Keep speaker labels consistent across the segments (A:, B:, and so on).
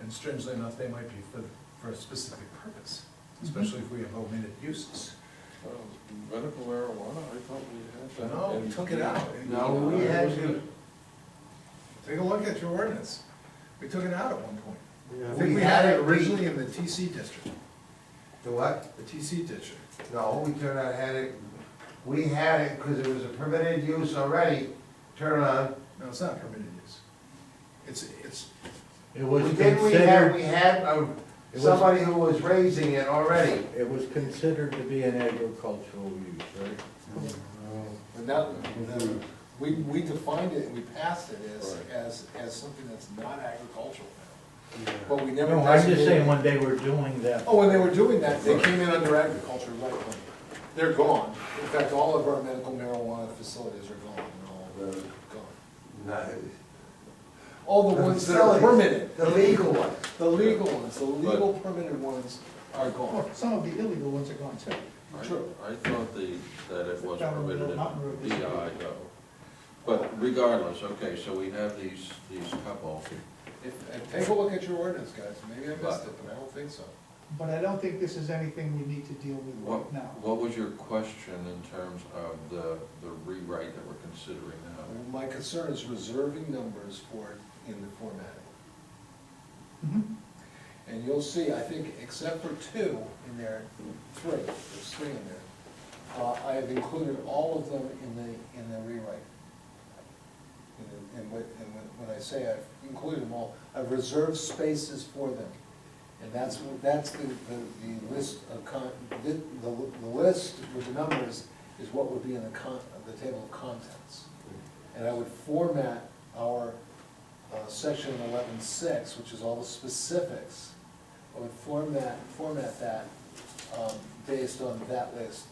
A: and strangely enough, they might be for, for a specific purpose, especially if we have omitted uses.
B: Well, Um, Medical marijuana, I thought we had that.
A: No, we
B: and-
A: took it out.
C: No, we had to-
A: Take a look at your ordinance. We took it out at one point. I
C: We
A: think we had
C: had
A: it
C: it
A: originally in the TC district,
C: The what?
A: the TC district.
C: No, we turned out, had it, we had it because it was a permitted use already, turn on.
A: No, it's not permitted use. It's, it's,
D: It was
C: Didn't we have,
D: considered,
C: we had uh,
D: was-
C: somebody who was raising it already.
D: it was considered to be an agricultural use, right?
E: But now, we, we defined it and we passed it as,
B: Right.
E: as, as something that's not agricultural now. But we never.
D: No, I'm just
E: designated-
D: saying when they were doing that.
E: Oh, when they were doing that, they came in under agriculture, right, when they're gone. In fact, all of our medical marijuana facilities are gone, they're all gone. All the ones that are
C: Facilities,
E: permitted,
C: The legal one.
E: the legal ones, the legal permitted ones are gone.
F: Some of the illegal ones are gone too.
B: I-
E: True.
B: I thought the, that it was
F: Down on the
B: permitted in
F: mountain road, this
B: DI
F: is-
B: though. But regardless, okay, so we have these, these couple.
E: If- and Take a look at your ordinance, guys, maybe I missed it, but I don't think so.
F: But I don't think this is anything we need to deal with
B: What,
F: right now.
B: what was your question in terms of the, the rewrite that we're considering now?
E: My concern is reserving numbers for, it in the formatting.
F: Mhm.
E: And you'll see, I think, except for two in there, three, there's three in there. Uh, I have included all of them in the, in the rewrite. And- And when, and when- when I say I've included them all, I've reserved spaces for them. And that's, what- that's the, the, the list of con, the, the the list with the numbers is what would be in the con, the table of contents. And I would format our uh, section eleven six, which is all the specifics, I would format, format that um, based on that list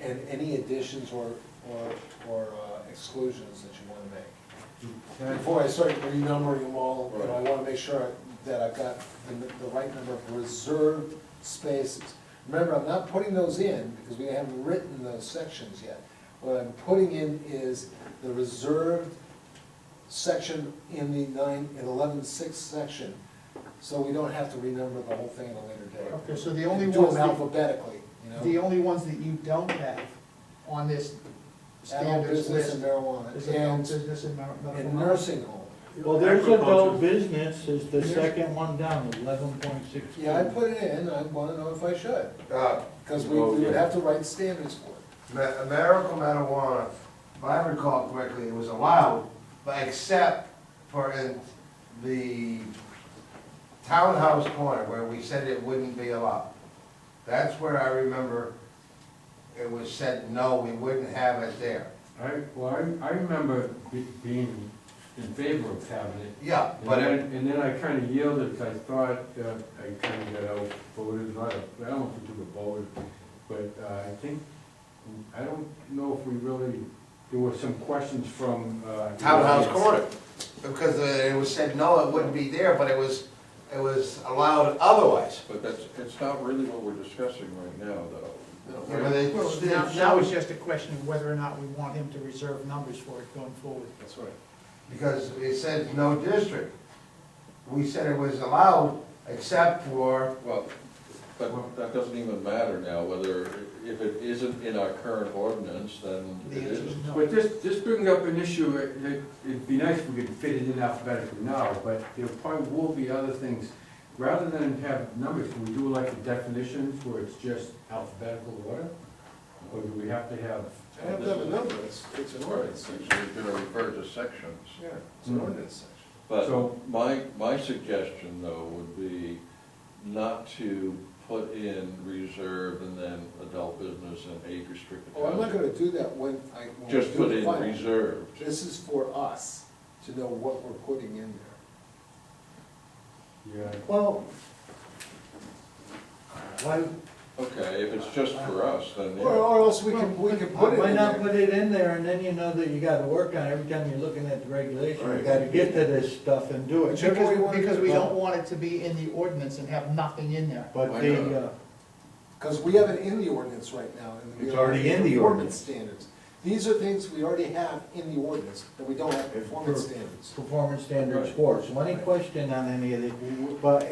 E: and any additions or, or, or uh, exclusions that you wanna make. Before I start renumbering them all, you know, I wanna make sure that I've got the, the right number of reserved spaces. Remember, I'm not putting those in because we haven't written those sections yet. What I'm putting in is the reserved section in the nine, in eleven six section, so we don't have to renumber the whole thing at a later date.
F: Okay, so the only
E: Do
F: ones
E: them
F: that-
E: alphabetically, you know?
F: The only ones that you don't have on this
E: Adult
F: standards
E: business
F: list
E: and
F: is
E: marijuana,
F: adult
E: and,
F: business and mar- medical.
E: and nursing home.
D: Well, there's adult business is the second one down, eleven point six.
E: Yeah, I put it in, I wanna know if I should,
C: Uh,
E: because we, we would have to write standards for it.
C: ma- Medical marijuana, if I recall correctly, it was allowed, but except for in the townhouse corner where we said it wouldn't be allowed. That's where I remember it was said, no, we wouldn't have it there.
G: I, well, I, I remember be- being in favor of having it.
C: Yeah,
G: And
C: but it,
G: then, and then I kinda yielded, 'cause I thought, uh, I kinda got outvoted, not, a- I don't know if we took a vote, but, uh, I think, I don't know if we really, there were some questions from, uh.
C: townhouse
G: the audience.
C: corner, because uh, it was said, no, it wouldn't be there, but it was, it was allowed otherwise.
B: But that's, it's not really what we're discussing right now, though.
C: Yeah, but they-
F: Well, now, now it's just a question of whether or not we want him to reserve numbers for it going forward.
E: That's right.
C: Because it said no district. We said it was allowed except for,
B: Well, but that doesn't even matter now, whether, if it isn't in our current ordinance, then
F: The
B: it
F: answer is
B: isn't.
F: no.
G: But this, this brings up an issue, it- it- it'd be nice if we could fit it in alphabetically now, but there probably will be other things. Rather than have numbers, can we do like the definitions where it's just alphabetical order? Or do we have to have? uh,
E: I don't have to have a number, it's, it's an ordinance section,
B: You're gonna refer to sections.
E: yeah, it's an ordinance section.
B: But
G: So-
B: my, my suggestion though would be not to put in reserve and then adult business and age restricted.
E: Oh, I'm not
B: housing.
E: gonna do that when I. when we
B: Just
E: do
B: put
E: the
B: in
E: final.
B: reserved.
E: This is for us to know what we're putting in there.
G: Yeah,
D: Well.
C: why,
B: Okay, if it's just for us, then
E: Or,
B: yeah.
E: or else we can, we can put it
D: Why
E: in
D: not
E: there.
D: put it in there and then you know that you gotta work on it every time you're looking at the regulation, you
B: Right.
D: gotta get to this stuff and do it.
E: Whichever way you
F: Because,
E: want to
F: because we
E: do it.
F: don't want it to be in the ordinance and have nothing in there.
D: But
B: Why not?
D: the, uh,
E: Because we have it in the ordinance right now. and we
D: It's
E: have
D: already in the
E: Performance
D: ordinance.
E: standards. These are things we already have in the ordinance, that we don't have performance standards.
D: performance standards for, so any question on any of the, but